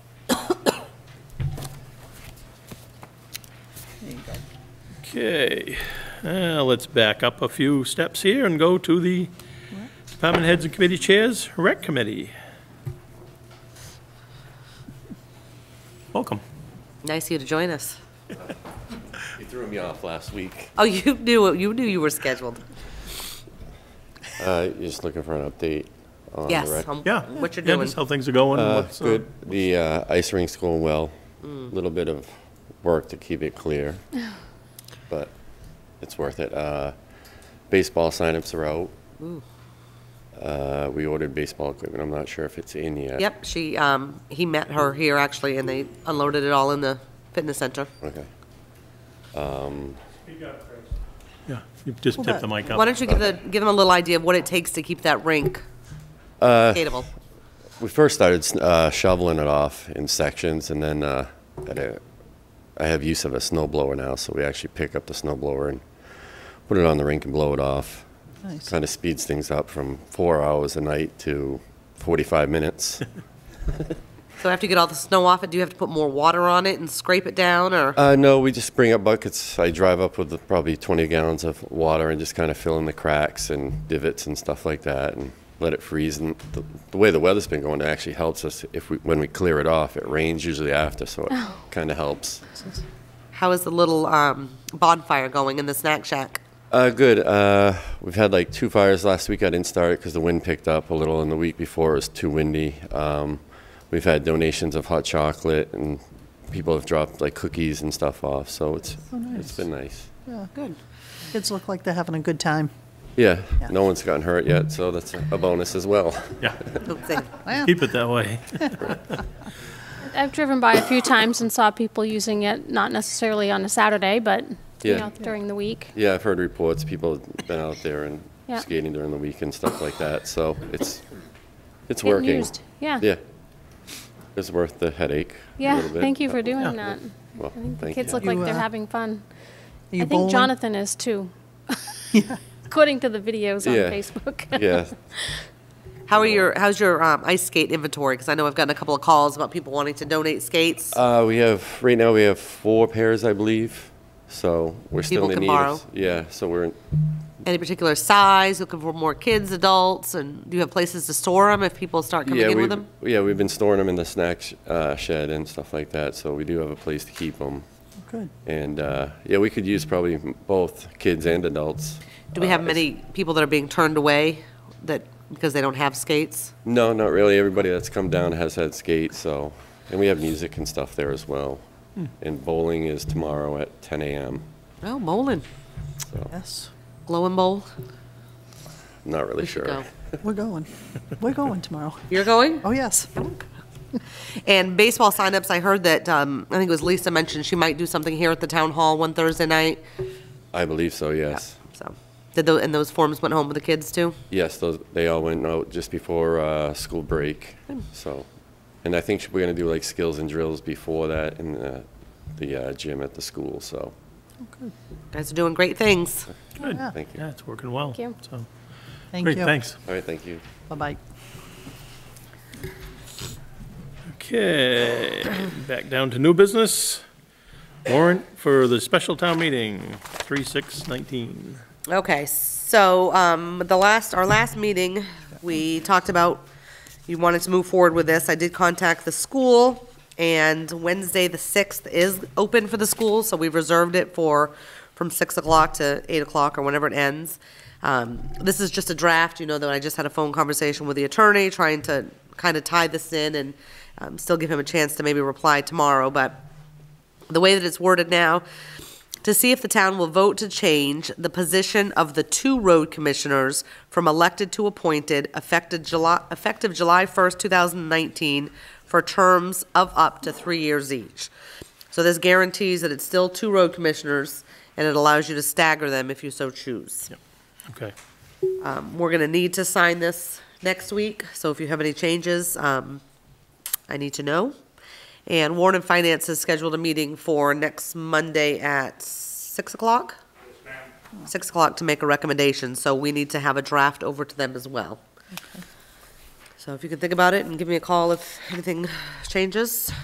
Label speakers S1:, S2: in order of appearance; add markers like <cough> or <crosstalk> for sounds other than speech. S1: Okay, uh, let's back up a few steps here and go to the department heads and committee chairs, rec committee. Welcome.
S2: Nice of you to join us.
S3: You threw me off last week.
S2: Oh, <laughs> you knew it. You knew you were scheduled.
S3: Uh, just looking for an update on
S2: yes.
S3: the rec.
S2: um,
S1: Yeah.
S2: What you're
S1: yeah,
S2: doing?
S1: just how things are going. and
S3: Uh,
S1: what's, uh,
S3: good. The uh, ice rink's going well. A little bit of work to keep it clear, but it's worth it. Uh, baseball signups are out. Uh, we ordered baseball equipment. I'm not sure if it's in yet.
S2: Yep. She. Um. He met her here actually, and they unloaded it all in the fitness center.
S3: Okay.
S1: Yeah, you just tip the mic up.
S2: Why don't you give the give them a little idea of what it takes to keep that rink skateable?
S3: We first started uh, shoveling it off in sections, and then uh, at a, I have use of a snow blower now, so we actually pick up the snow blower and put it on the rink and blow it off.
S4: Nice.
S3: Kind of speeds things up from four hours a night to 45 minutes. <laughs>
S2: So after you get all the snow off it, do you have to put more water on it and scrape it down, or
S3: uh, no, we just bring up buckets. I drive up with probably 20 gallons of water and just kind of fill in the cracks and divots and stuff like that, and let it freeze. And the, the way the weather's been going, it actually helps us if we when we clear it off. It rains usually after, so it kind of helps.
S2: how is the little um, bonfire going in the snack shack?
S3: Uh, good. Uh, we've had like two fires last week. I didn't start it because the wind picked up a little, and the week before it was too windy. Um, we've had donations of hot chocolate, and people have dropped like cookies and stuff off. So it's it's been nice.
S2: Good.
S4: Kids look like they're having a good time.
S3: Yeah,
S4: Yeah.
S3: no one's gotten hurt yet, so that's a bonus as well. <laughs>
S1: Yeah,
S2: Let's see.
S1: keep it that way.
S5: I've driven by a few times and saw people using it, not necessarily on a Saturday, but you
S3: Yeah.
S5: know, during the week.
S3: Yeah, I've heard reports. People have been out there and
S5: Yeah.
S3: skating during the week and stuff like that. So it's it's
S5: Getting
S3: working.
S5: used. Yeah.
S3: Yeah, it's worth the headache. a
S5: Yeah,
S3: little bit.
S5: thank you for doing
S1: Yeah.
S5: that.
S3: Well,
S5: I think the
S3: thank
S5: kids
S3: you.
S5: look like
S4: You,
S5: they're
S4: uh,
S5: having fun.
S4: Are you
S5: I think
S4: bowling?
S5: Jonathan
S4: <laughs>
S5: is too. According to the videos on
S3: Yeah.
S5: Facebook. <laughs>
S3: Yeah,
S2: How are your How's your um, ice skate inventory? Because I know I've gotten a couple of calls about people wanting to donate skates.
S3: Uh, we have, right now, we have four pairs, I believe, so we're still
S2: People
S3: in
S2: can
S3: need. of-
S2: borrow.
S3: Yeah, so we're,
S2: any particular size, looking for more kids, adults, and do you have places to store them if people start coming
S3: yeah,
S2: in
S3: we,
S2: with them?
S3: yeah, we've been storing them in the snack sh- uh, shed and stuff like that, so we do have a place to keep them.
S4: Good.
S3: And, uh, yeah, we could use probably m- both kids and adults.
S2: Do we have
S3: Uh,
S2: many people that are being turned away that, because they don't have skates?
S3: No, not really. Everybody that's come down has had skates, so, and we have music and stuff there as well. And bowling is tomorrow at 10 a.m.,
S2: Oh, bowling,
S3: so,
S4: Yes,
S2: glow and bowl.
S3: not really
S2: We should go.
S3: sure.
S4: we're going. We're going tomorrow.
S2: You're going?
S4: Oh, yes.
S2: And baseball signups, I heard that, um, I think it was Lisa mentioned she might do something here at the town hall one Thursday night.
S3: I believe so, yes.
S2: So, did those, and those forms went home with the kids too?
S3: Yes, those, they all went out just before uh, school break, so. And I think we're going to do like skills and drills before that in the, the uh, gym at the school, so,
S2: Guys are doing great things.
S3: thank you.
S1: Yeah, it's working well.
S5: you.
S1: So,
S4: Thank you.
S1: great, thanks.
S3: All right, thank you.
S4: Bye-bye.
S1: Okay, back down to new business. Warrant for the special town meeting, 3/6/19.
S2: Okay, so, um, the last, our last meeting, we talked about, you wanted to move forward with this. I did contact the school, and Wednesday, the sixth, is open for the school, so we've reserved it for, from six o'clock to eight o'clock, or whenever it ends. Um, this is just a draft, you know, that I just had a phone conversation with the attorney, trying to kind of tie this in and, um, still give him a chance to maybe reply tomorrow, but the way that it's worded now, to see if the town will vote to change the position of the two road commissioners from elected to appointed, effective July, effective July 1st, 2019, for terms of up to three years each. So this guarantees that it's still two road commissioners, and it allows you to stagger them if you so choose.
S1: Okay,
S2: Um, We're going to need to sign this next week, so if you have any changes, um, I need to know. And Warren and Finance has scheduled a meeting for next Monday at 6 o'clock? 6 o'clock to make a recommendation, so we need to have a draft over to them as well. So if you can think about it and give me a call if anything changes.